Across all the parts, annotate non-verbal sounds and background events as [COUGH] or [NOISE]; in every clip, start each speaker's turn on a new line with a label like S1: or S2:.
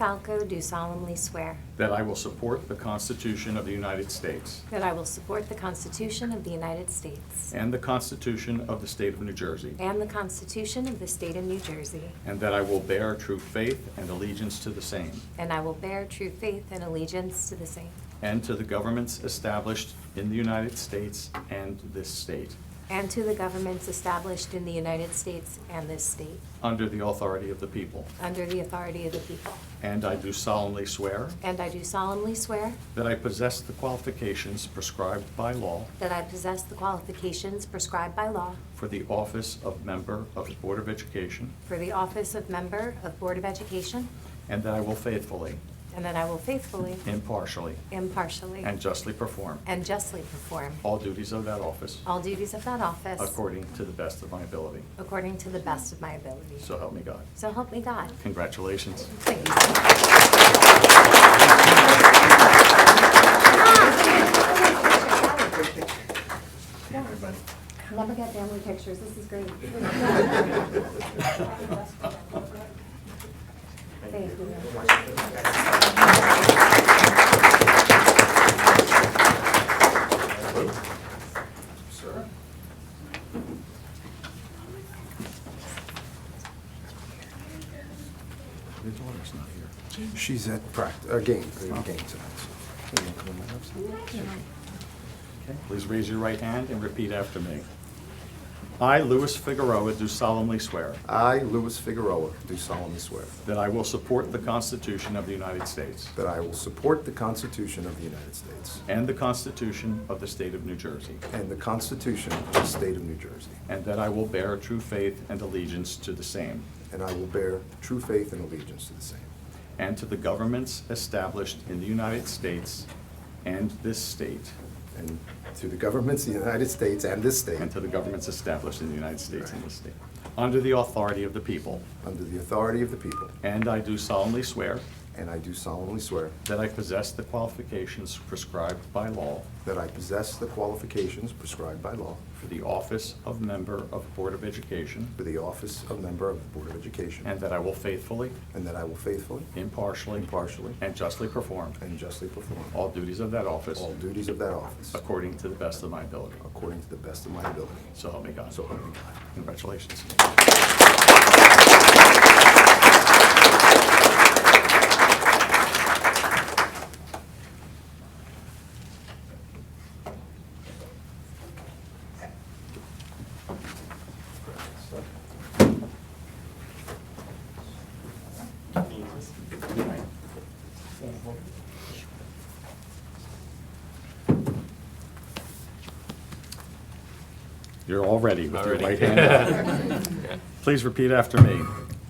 S1: Falco, do solemnly swear
S2: that I will support the Constitution of the United States
S1: that I will support the Constitution of the United States
S2: and the Constitution of the State of New Jersey,
S1: and the Constitution of the State of New Jersey,
S2: and that I will bear true faith and allegiance to the same
S1: and I will bear true faith and allegiance to the same
S2: and to the governments established in the United States and this state,
S1: and to the governments established in the United States and this state,
S2: under the authority of the people.
S1: under the authority of the people.
S2: And I do solemnly swear
S1: And I do solemnly swear
S2: that I possess the qualifications prescribed by law
S1: that I possess the qualifications prescribed by law
S2: for the office of member of the Board of Education,
S1: for the office of Member of Board of Education,
S2: and that I will faithfully,
S1: and that I will faithfully,
S2: impartially,
S1: impartially,
S2: and justly perform
S1: and justly perform
S2: all duties of that office
S1: all duties of that office
S2: according to the best of my ability.
S1: according to the best of my ability.
S2: So help me God.
S1: So help me God.
S2: Congratulations.
S1: Thank you. Never get family pictures, this is great. Thank you.
S2: Your daughter's not here.
S3: She's at practice, a game, a game tonight.
S2: Okay, Please raise your right hand and repeat after me. I, Louis Figueroa, do solemnly swear
S3: so. I, Louis Figueroa, do solemnly swear
S2: that I will support the Constitution of the United States
S3: that I will support the Constitution of the United States
S2: and the Constitution of the State of New Jersey,
S3: and the Constitution of the State of New Jersey,
S2: and that I will bear true faith and allegiance to the same
S3: and I will bear true faith and allegiance to the same,
S2: and to the governments established in the United States and this state,
S3: and to the governments of the United States and this state,
S2: and to the governments established in the United States and this state, under the authority of the people.
S3: under the authority of the people,
S2: And I do solemnly swear
S3: and I do solemnly swear
S2: that I possess the qualifications prescribed by law
S3: that I possess the qualifications prescribed by law
S2: for the office of member of Board of Education,
S3: for the office of member of the Board of Education,
S2: and that I will faithfully,
S3: and that I will faithfully
S2: impartially,
S3: Impartially.
S2: and justly perform
S3: and justly perform
S2: all duties of that office
S3: all duties of that office
S2: according to the best of my ability.
S3: according to the best of my ability.
S2: So help me God.
S3: So help me God.
S2: Congratulations. You're all ready with your right hand up.
S3: [LAUGHS]
S2: Please repeat after me.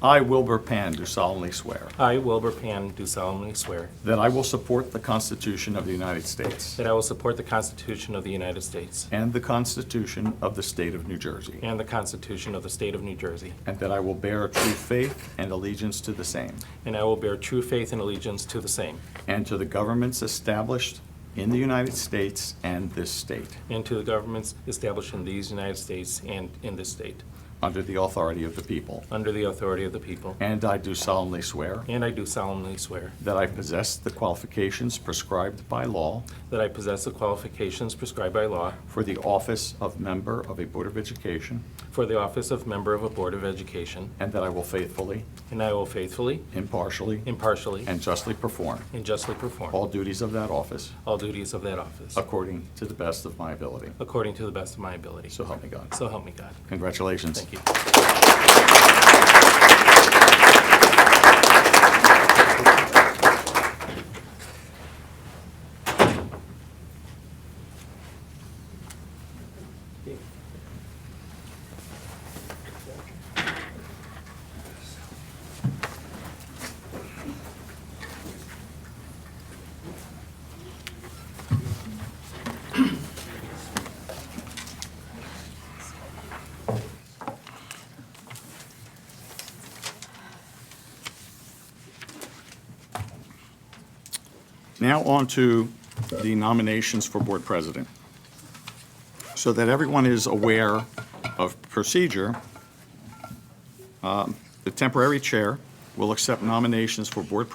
S2: I, Wilbur Pan, do solemnly swear
S4: [LAUGHS] I, Wilbur Pan, do solemnly swear
S2: that I will support the Constitution of the United States
S4: that I will support the Constitution of the United States
S2: and the Constitution of the State of New Jersey,
S4: and the Constitution of the State of New Jersey,
S2: and that I will bear true faith and allegiance to the same,
S4: and I will bear true faith and allegiance to the same,
S2: and to the governments established in the United States and this state,
S4: and to the governments established in these United States and in this state,
S2: under the authority of the people.
S4: under the authority of the people.
S2: And I do solemnly swear
S4: And I do solemnly swear
S2: that I possess the qualifications prescribed by law
S4: that I possess the qualifications prescribed by law
S2: for the office of member of a Board of Education,
S4: for the office of member of a Board of Education,
S2: and that I will faithfully,
S4: and I will faithfully,
S2: impartially,
S4: impartially,
S2: and justly perform
S4: and justly perform
S2: all duties of that office
S4: all duties of that office,
S2: according to the best of my ability.
S4: according to the best of my ability.
S2: So help me God.
S4: So help me God.
S2: Congratulations.
S4: Thank you.
S2: Now on to the nominations for board president. So that everyone is aware of procedure, um, the temporary chair will accept nominations for board